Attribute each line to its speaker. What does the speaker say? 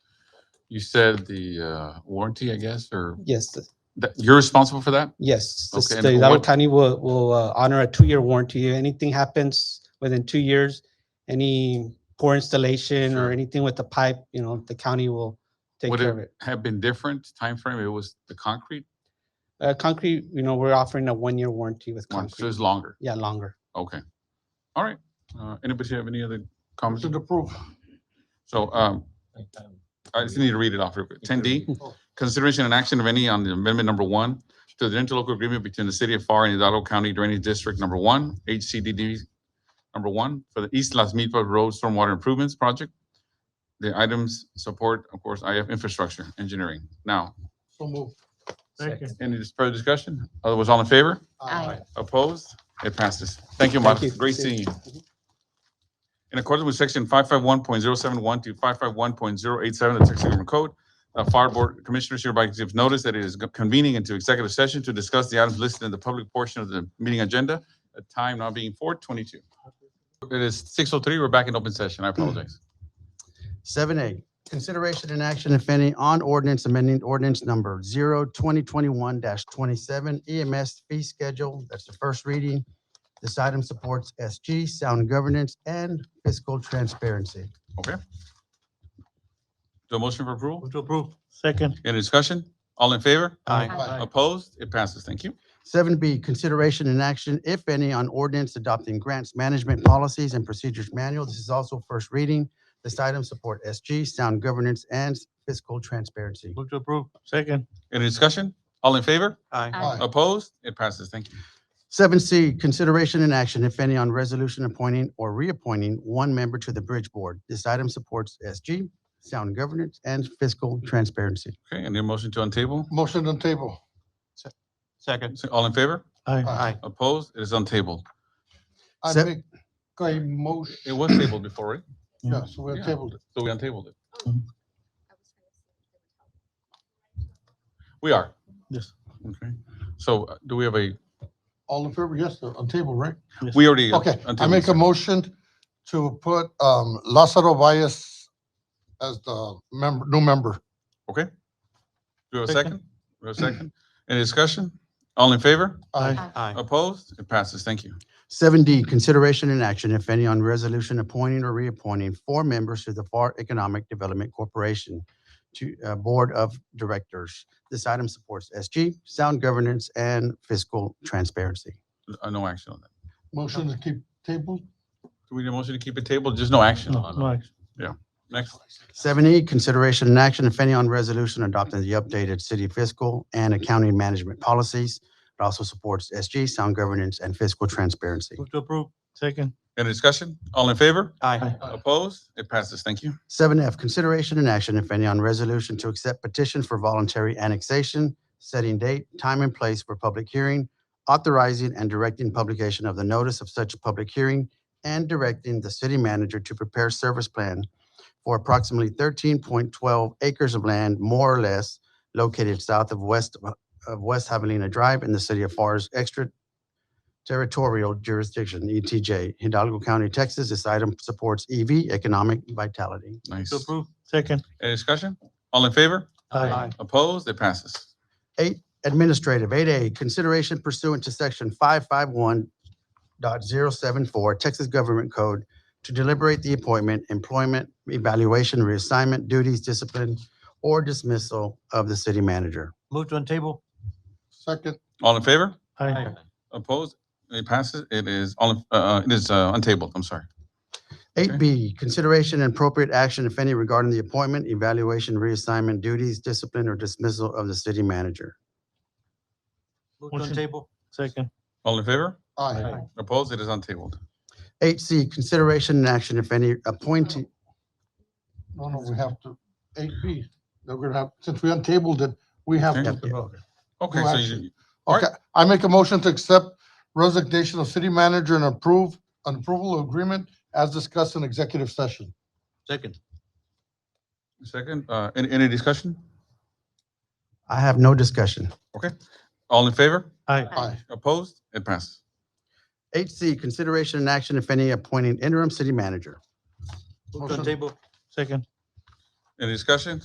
Speaker 1: you said the uh, warranty, I guess, or
Speaker 2: Yes, the-
Speaker 1: that you're responsible for that?
Speaker 2: yes. The
Speaker 1: Okay, and
Speaker 2: state- Broward
Speaker 1: what-
Speaker 2: County will, will uh, honor a two-year warranty. If Anything happens within two years, any poor installation
Speaker 1: Sure.
Speaker 2: or anything with the pipe, you know, the county will take
Speaker 1: Would
Speaker 2: care of it.
Speaker 1: Have been different time frame. It was the concrete
Speaker 2: Uh, concrete, you know, we're offering a one-year warranty with
Speaker 1: one, so
Speaker 2: concrete.
Speaker 1: it's longer.
Speaker 2: Yeah, longer.
Speaker 1: Okay. All right. Uh, Anybody have any other comments?
Speaker 3: Motion to approve.
Speaker 1: So um, I just need to read it off real quick. Ten D, consideration and action of any on the amendment number one to the interlocal agreement between the city of FAR and Hidalgo County Drainage District Number One, HCDD Number One, for the East Las Milpas Road Stormwater Improvements Project. The items support, of course, IF Infrastructure Engineering. Now,
Speaker 3: So moved. Thank you.
Speaker 1: any dis- further discussion? Otherwise, all in favor?
Speaker 4: Aye.
Speaker 1: Opposed? It passes. Thank you, Mark.
Speaker 2: Thank you.
Speaker 1: Great
Speaker 2: See you.
Speaker 1: seeing you. In accordance with section five five one point zero seven one to five five one point zero eight seven of the Texas Government Code, the Fire Board Commissioners hereby gives notice that it is convening into executive session to discuss the items listed in the public portion of the meeting agenda, at time not being four twenty-two. It is six oh three. We're back in open session. I apologize.
Speaker 5: Seven A, consideration and action, if any, on ordinance amending ordinance number zero twenty twenty-one dash twenty-seven EMS fee schedule. That's the first reading. This item supports SG, sound governance, and fiscal transparency.
Speaker 1: The motion for approval?
Speaker 3: Motion to approve. Second.
Speaker 1: Any discussion? All in favor?
Speaker 4: Aye.
Speaker 1: Opposed? It passes. Thank you.
Speaker 5: Seven B, consideration and action, if any, on ordinance adopting grants management policies and procedures manual. This is also first reading. This item support SG, sound governance, and fiscal transparency.
Speaker 3: Motion to approve. Second.
Speaker 1: Any discussion? All in favor?
Speaker 4: Aye.
Speaker 1: Opposed? It passes. Thank you.
Speaker 5: Seven C, consideration and action, if any, on resolution appointing or reappointing one member to the Bridge Board. This item supports SG, sound governance, and fiscal transparency.
Speaker 1: Okay, and the motion to untable?
Speaker 3: Motion on table.
Speaker 1: Second. All in favor?
Speaker 3: Aye.
Speaker 1: Opposed? It is untabled.
Speaker 3: I
Speaker 5: Se-
Speaker 3: make a motion,
Speaker 1: It was tabled before, right?
Speaker 3: yeah, so we
Speaker 1: Yeah.
Speaker 3: have tabled it.
Speaker 1: So we untabled it. We are.
Speaker 3: Yes.
Speaker 1: Okay. So uh, do we have a,
Speaker 3: All in favor, yes, on table, right?
Speaker 1: we already. uh,
Speaker 3: Okay, I
Speaker 1: untabled
Speaker 3: make a
Speaker 1: this.
Speaker 3: motion to put um Lázaro Valles as the member, new member.
Speaker 1: Okay. Do we have a
Speaker 3: Second.
Speaker 1: second? We have a second? Any discussion? All in favor?
Speaker 3: Aye.
Speaker 1: Opposed? It passes. Thank you.
Speaker 5: Seven D, consideration and action, if any, on resolution appointing or reappointing four members to the FAR Economic Development Corporation to uh, Board of Directors. This item supports SG, sound governance, and fiscal transparency.
Speaker 1: Uh, No action on that.
Speaker 3: Motion to keep tabled.
Speaker 1: Do we need a motion to keep it tabled? Just no action
Speaker 3: Oh,
Speaker 1: on it. Next.
Speaker 5: Seven E, consideration and action, if any, on resolution adopting the updated city fiscal and accounting management policies. It also supports SG, sound governance, and fiscal transparency.
Speaker 3: to approve. Second.
Speaker 1: Any discussion? All in favor?
Speaker 5: Aye.
Speaker 3: Aye.
Speaker 1: Opposed? It passes. Thank you.
Speaker 5: Seven F, consideration and action, if any, on resolution to accept petition for voluntary annexation, setting date, time, and place for public hearing, authorizing and directing publication of the notice of such public hearing, and directing the city manager to prepare service plan for approximately thirteen point twelve acres of land, more or less, located south of west, of West Javelina Drive in the city of FAR's extraterritorial jurisdiction, ETJ, Hidalgo County, Texas. This item supports EV, economic vitality.
Speaker 1: Nice.
Speaker 3: approve. Second.
Speaker 1: Any discussion? All in favor? Opposed? It passes.
Speaker 5: Administrative, eight A, consideration pursuant to section five five one dot zero seven four Texas Government Code to deliberate the appointment, employment, evaluation, reassignment, duties, discipline, or dismissal of the city manager.
Speaker 3: Move to on table. Second.
Speaker 1: All in favor?
Speaker 3: Aye.
Speaker 1: Opposed? It passes. It is all, in- uh, uh, it is uh, untabled. I'm sorry. Okay.
Speaker 5: Eight B, consideration and appropriate action, if any, regarding the appointment, evaluation, reassignment, duties, discipline, or dismissal of the city manager.
Speaker 3: Move on table. Second.
Speaker 1: All in favor?
Speaker 3: Aye.
Speaker 1: Opposed? It is untabled.
Speaker 5: Eight C, consideration and action, if any, appointing,
Speaker 3: No, no, we have to, eight B, we're gonna have, since we untabled it, we have
Speaker 1: Okay.
Speaker 3: to vote.
Speaker 1: Okay,
Speaker 3: No
Speaker 1: so
Speaker 3: action.
Speaker 1: you, Alright.
Speaker 3: Okay, I make a motion to accept resignation of city manager and approve, an approval of agreement as discussed in executive session.
Speaker 6: Second.
Speaker 1: second, uh, any, any discussion?
Speaker 5: I have no discussion.
Speaker 1: All in favor?
Speaker 3: Aye.
Speaker 1: Opposed? It passes.
Speaker 5: Eight C, consideration and action, if any, appointing interim city manager.
Speaker 3: Motion-
Speaker 6: Second.
Speaker 1: Any discussion?